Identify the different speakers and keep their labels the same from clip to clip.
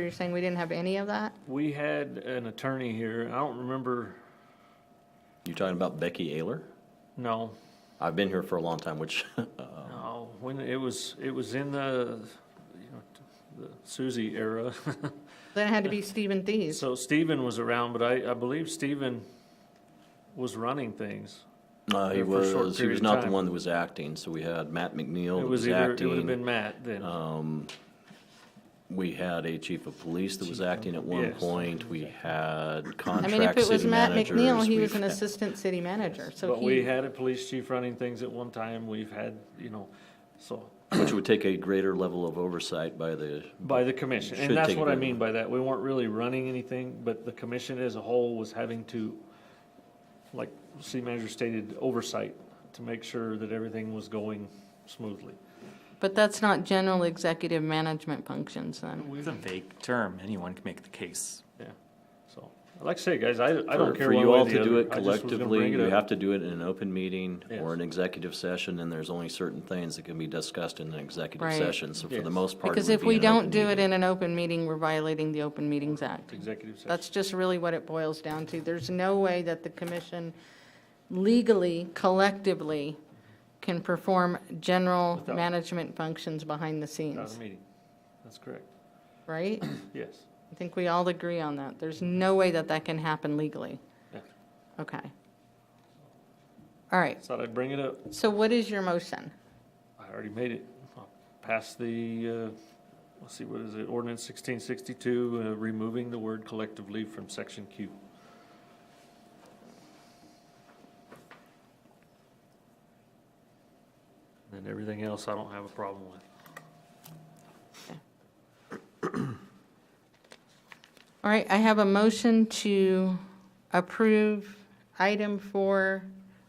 Speaker 1: You're saying we didn't have any of that?
Speaker 2: We had an attorney here, I don't remember,
Speaker 3: You're talking about Becky Ayler?
Speaker 2: no,
Speaker 3: I've been here for a long time, which, uh,
Speaker 2: no, when, it was, it was in the, you know, the Suzie era.
Speaker 1: Then it had to be Stephen Thies.
Speaker 2: So Stephen was around, but I, I believe Stephen was running things.
Speaker 3: uh, he
Speaker 2: Yeah, for a short
Speaker 3: was, he
Speaker 2: period
Speaker 3: was
Speaker 2: of
Speaker 3: not the
Speaker 2: time.
Speaker 3: one that was acting, so we had Matt McNeil
Speaker 2: It
Speaker 3: that
Speaker 2: was
Speaker 3: was
Speaker 2: either, it would have
Speaker 3: acting.
Speaker 2: been Matt then.
Speaker 3: We had a chief of police that was acting at one
Speaker 2: yes.
Speaker 3: point, we
Speaker 1: I
Speaker 3: had
Speaker 1: mean, if
Speaker 3: contract
Speaker 1: it was
Speaker 3: city
Speaker 1: Matt McNeil,
Speaker 3: managers.
Speaker 1: he was
Speaker 3: We've
Speaker 1: an
Speaker 3: had-
Speaker 1: assistant city manager, so
Speaker 2: But we
Speaker 1: he,
Speaker 2: had a police chief running things at one time, we've had, you know, so,
Speaker 3: Which would take a greater level of oversight by the,
Speaker 2: by the commission.
Speaker 3: Should
Speaker 2: And that's
Speaker 3: take
Speaker 2: what I
Speaker 3: over.
Speaker 2: mean by that, we weren't really running anything, but the commission as a whole was having to, like city manager stated, oversight to make sure that everything was going smoothly.
Speaker 1: but that's not general executive management functions then.
Speaker 4: It's a vague term. Anyone can make the case.
Speaker 2: Yeah, so, like I say, guys, I, I
Speaker 3: for
Speaker 2: don't care
Speaker 3: for
Speaker 2: one
Speaker 3: you
Speaker 2: way
Speaker 3: all
Speaker 2: or the
Speaker 3: to do
Speaker 2: other.
Speaker 3: it
Speaker 2: I just was gonna
Speaker 3: collectively,
Speaker 2: bring
Speaker 3: you
Speaker 2: it
Speaker 3: have
Speaker 2: up.
Speaker 3: to do it in an open meeting or
Speaker 2: Yes.
Speaker 3: an executive session, and there's only certain things that can be discussed in an executive
Speaker 1: Right.
Speaker 3: session, so for the
Speaker 2: Yes.
Speaker 3: most part. it
Speaker 1: Because
Speaker 3: would
Speaker 1: if
Speaker 3: be
Speaker 1: we
Speaker 3: an open
Speaker 1: don't do it
Speaker 3: meeting.
Speaker 1: in an open meeting, we're violating the Open Meetings Act.
Speaker 2: Executive session.
Speaker 1: That's just really what it boils down to. There's no way that the commission legally, collectively, can perform general
Speaker 2: Without-
Speaker 1: management functions behind the
Speaker 2: Not
Speaker 1: scenes,
Speaker 2: a meeting. That's correct.
Speaker 1: right?
Speaker 2: Yes.
Speaker 1: I think we all agree on that. There's no way that that can happen legally.
Speaker 2: Yeah.
Speaker 1: Okay. All right,
Speaker 2: Thought I'd bring it up.
Speaker 1: so what is your motion?
Speaker 2: I already made it. I'll Pass the, uh, let's see, what is it? Ordinance sixteen sixty-two, uh, removing the word collectively from section Q. And everything else I don't have a problem with.
Speaker 1: All right, I have a motion to approve item four,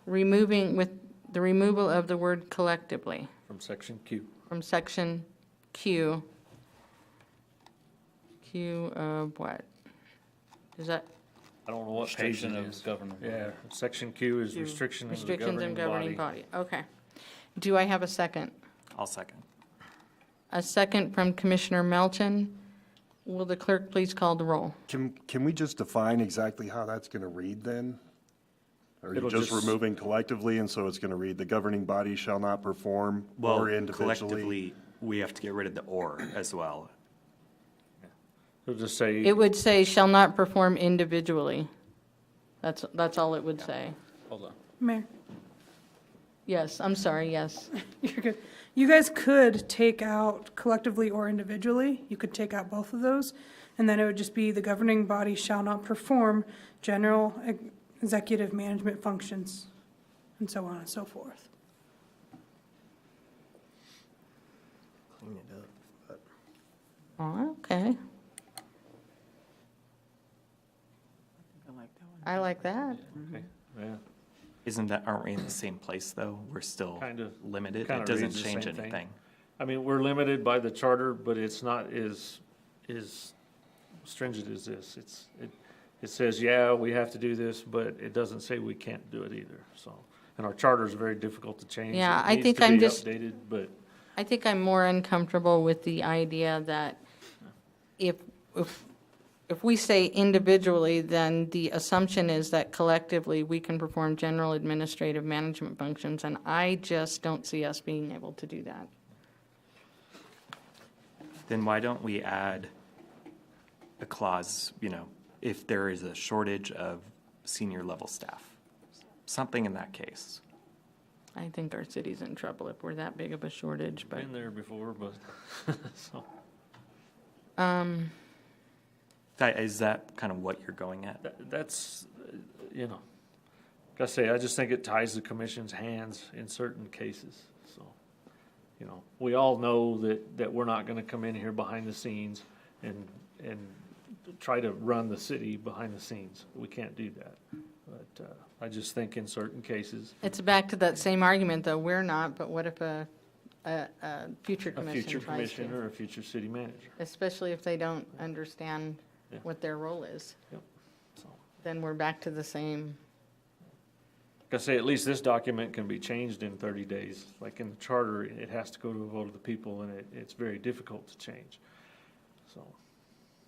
Speaker 1: removing with the removal of the word collectively
Speaker 2: From section Q.
Speaker 1: from section Q. Q of what? Is that
Speaker 2: I don't know what page it
Speaker 5: Restriction
Speaker 2: is.
Speaker 5: of government.
Speaker 2: Yeah, section Q is restriction of the
Speaker 1: restrictions and governing
Speaker 2: governing body.
Speaker 1: body? Okay. Do I have a second?
Speaker 4: I'll second.
Speaker 1: A second from Commissioner Melton. Will the clerk please call the roll?
Speaker 6: Can, can we just define exactly how that's going to read then? Are you
Speaker 2: It'll
Speaker 6: just
Speaker 2: just-
Speaker 6: removing collectively, and so it's going to read, "The governing body shall not perform or individually"?
Speaker 4: collectively, we have to get rid of the or as well.
Speaker 2: It'll just say.
Speaker 1: It would say shall not perform individually. That's, that's all it would say.
Speaker 2: Hold on.
Speaker 7: Mayor,
Speaker 1: Yes, I'm sorry, yes.
Speaker 7: you're good. You guys could take out collectively or individually, you could take out both of those, and then it would just be the governing body shall not perform general ex- executive management functions, and so on and so forth.
Speaker 1: Oh, Okay. I like that.
Speaker 2: Okay, yeah.
Speaker 4: Isn't that, aren't we in the same place, though? We're still
Speaker 2: Kinda-
Speaker 4: limited.
Speaker 2: kinda
Speaker 4: It doesn't
Speaker 2: reads the
Speaker 4: change
Speaker 2: same thing.
Speaker 4: anything.
Speaker 2: I mean, we're limited by the charter, but it's not as, as stringent as this. It's, it, it says, yeah, we have to do this, but it doesn't say we can't do it either, so. And our charter is very difficult to change.
Speaker 1: Yeah,
Speaker 2: It
Speaker 1: I
Speaker 2: needs
Speaker 1: think
Speaker 2: to
Speaker 1: I'm
Speaker 2: be
Speaker 1: just-
Speaker 2: Updated, but
Speaker 1: I think I'm more uncomfortable with the idea that if, if, if we say individually, then the assumption is that collectively, we can perform general administrative management functions, and I just don't see us being able to do that.
Speaker 4: Then why don't we add a clause, you know, if there is a shortage of senior level staff? Something in that case.
Speaker 1: I think our city's in trouble if we're that big of a shortage, but.
Speaker 2: been there before, but, so.
Speaker 4: That, is that kind of what you're going at?
Speaker 2: That- That's, uh, you know, like I say, I just think it ties the commission's hands in certain cases, so. You know, we all know that, that we're not gonna come in here behind the scenes and, and try to run the city behind the scenes. We can't do that. But, uh, I just think in certain cases,
Speaker 1: It's back to that same argument, though, we're not, but what if a, a, a future
Speaker 2: a
Speaker 1: commission
Speaker 2: future
Speaker 1: tries
Speaker 2: commission
Speaker 1: to?
Speaker 2: or a future city manager,
Speaker 1: Especially if they don't understand
Speaker 2: Yeah.
Speaker 1: what their role is,
Speaker 2: so.
Speaker 1: then we're back to the same.
Speaker 2: Like I say, at least this document can be changed in thirty days. Like in the charter, it has to go to a vote of the people, and it, it's very difficult to change. So,